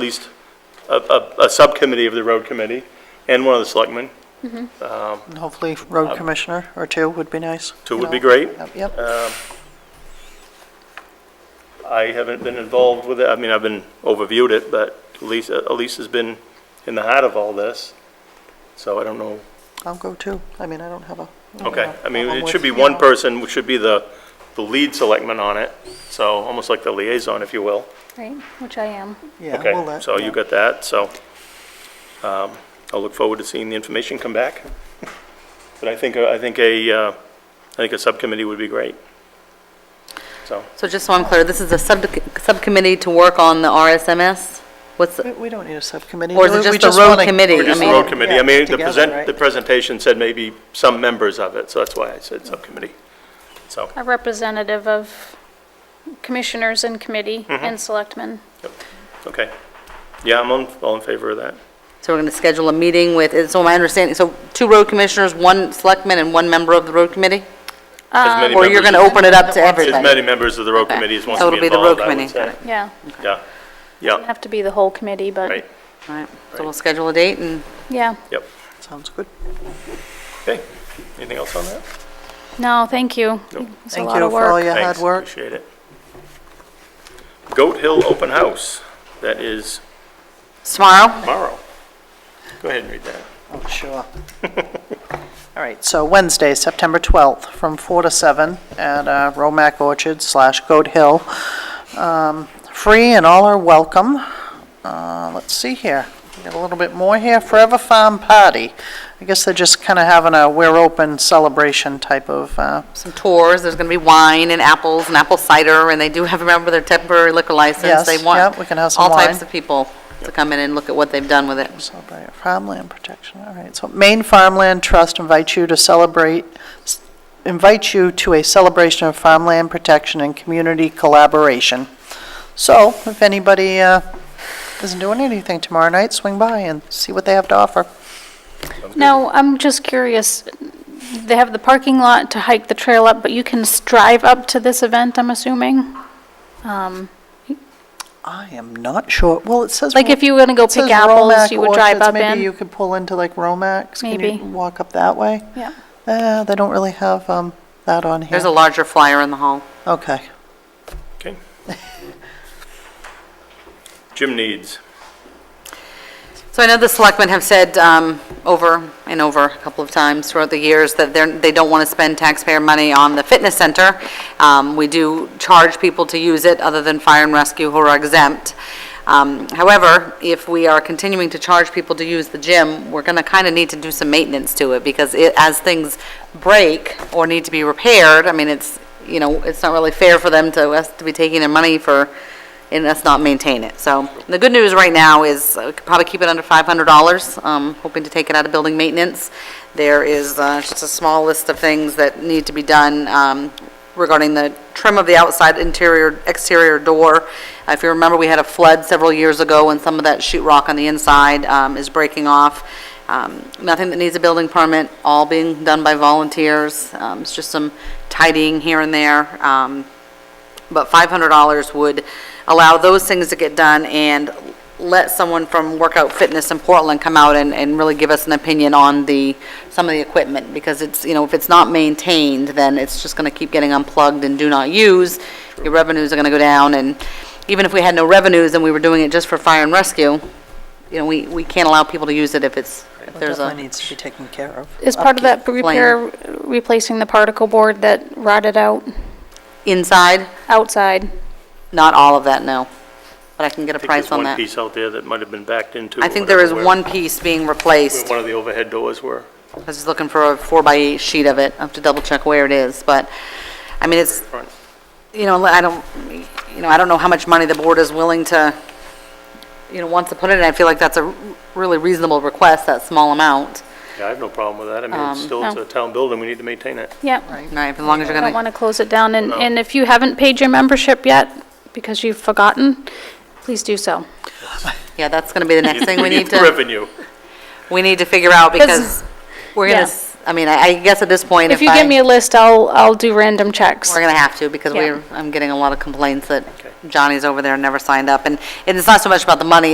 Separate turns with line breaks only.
at least a, a, a subcommittee of the road committee and one of the selectmen.
And Hopefully, road commissioner or two would be nice.
Uh, Two
you
would be
know?
great.
Yep, Yep,
Um, I haven't been involved with it, I mean, I've been, overviewed it, but Elise, uh, Elise has been in the heart of all this, so I don't know.
I'll go too. I mean, I don't have a. don't
Okay,
have a
I mean,
problem
it should
with,
be
you
one
know.
person, which should be the, the lead selectman on it, so almost like the liaison, if you will.
Right, which I am.
Yeah, we'll
Okay,
let-
so
yeah.
you got that, so um, I'll look forward to seeing the information come back. But I think, I think a, uh, I think a subcommittee would be great. So,
So just so I'm clear, this is a sub subcommittee to work on the RSMS? What's, the-
We- We don't need a subcommittee.
Or is it
We- we
just the road
wanna-
committee?
or
I
just the
mean-
road committee, I
Yeah,
mean, the
together,
present,
right?
the presentation said maybe some members of it, so that's why I said subcommittee. So,
A representative of commissioners and committee
Mm-hmm.
and selectmen.
okay. Yeah, I'm on- all in favor of that.
so we're going to schedule a meeting with, so my understanding, so two road commissioners, one selectman, and one member of the road committee?
As many
Or Uh, you're
members-
going to open it up to
As
everybody?
many members of the road
Okay.
committee as wants
So
to
it'll
be
be the road
involved, I would
committee.
say.
Yeah,
Yeah, yeah,
have to be the whole committee,
right,
but,
All right, so we'll schedule a date and,
yeah.
yep.
Sounds good.
Okay, anything else on that?
No, thank you.
Nope.
It's a
Thank
lot
you
of
for all
work.
your hard
Thanks,
work.
Appreciate it. Goat Hill Open House, that is
tomorrow?
tomorrow. Go ahead and read that.
Oh, sure. All right, so Wednesday, September 12th, from 4 to 7 at uh, Romac Orchard slash Goat Hill. Um, Free and all are welcome. Uh, Let's see here, we got a little bit more here, Forever Farm Party. I guess they're just kind of having a we're open celebration type of, uh,
Some tours, there's going to be wine and apples and apple cider, and they do have, remember, their temporary liquor license.
Yes,
They
yeah,
want
we can have some
All
wine.
types of people to come in and look at what they've done with it.
Celebrate farmland protection, all right. So Maine Farmland Trust invites you to celebrate, invites you to a celebration of farmland protection and community collaboration. So if anybody uh, isn't doing anything tomorrow night, swing by and see what they have to offer.
No, I'm just curious, they have the parking lot to hike the trail up, but you can s- drive up to this event, I'm assuming? Um,
I am not sure, well, it says.
Like if you were gonna go
it says
pick apples,
Romac
you would drive
Orchards.
up
Maybe
in?
you could pull into like Romax. Can
Maybe.
you walk up that way?
Yeah.
Uh, They don't really have um, that on here.
There's a larger flyer in the hall.
Okay.
Okay. Gym needs.
So I know the selectmen have said um, over and over a couple of times throughout the years that they're, they don't want to spend taxpayer money on the fitness center. Um, We do charge people to use it, other than fire and rescue who are exempt. Um, However, if we are continuing to charge people to use the gym, we're going to kind of need to do some maintenance to it, because it- as things break or need to be repaired, I mean, it's, you know, it's not really fair for them to, us to be taking their money for and let's not maintain it. So the good news right now is uh, we could probably keep it under $500, um, hoping to take it out of building maintenance. There is uh, just a small list of things that need to be done um, regarding the trim of the outside interior, exterior door. Uh, If you remember, we had a flood several years ago, and some of that sheet rock on the inside um, is breaking off. Um, Nothing that needs a building permit, all being done by volunteers. Um, It's just some tidying here and there. Um, but $500 would allow those things to get done and let someone from Workout Fitness in Portland come out and, and really give us an opinion on the, some of the equipment, because it's, you know, if it's not maintained, then it's just gonna keep getting unplugged and do not use, your revenues are gonna go down, and even if we had no revenues and we were doing it just for fire and rescue, you know, we, we can't allow people to use it if it's, if there's a.
Definitely needs to be taken care of.
Is part of that
Upkeep
repair
plan.
replacing the particle board that rotted out
Inside,
outside?
not all of that, no, but I can get a
I think
price
there's
on
one
that.
piece out there that might have been backed into.
I
or
think there is
whatever, where-
one piece being
where
replaced.
One of the overhead doors were.
I was just looking for a four by eight sheet of it. I have to double check where it is, but, I mean, it's,
Front.
you know, I don't, you know, I don't know how much money the board is willing to, you know, wants to put in. I feel like that's a really reasonable request, that small amount.
Yeah, I have no problem with that, I mean, it's
Um,
still, it's
no.
a town building, we need to maintain it.
Yeah.
Right, as long as you're
I don't
gonna,
want to close it down, and,
No.
and if you haven't paid your membership yet, because you've forgotten, please do so.
yeah, that's gonna be the next thing we need
the
to,
Revenue.
we need to figure out, because we're gonna,
Yeah.
s- I mean, I I guess at this point,
If
if
you give
I,
me a list, I'll, I'll do random checks.
we're gonna have to, because
Yeah.
we're, I'm getting a lot of complaints that
Okay.
Johnny's over there and never signed up, and, and it's not so much about the money,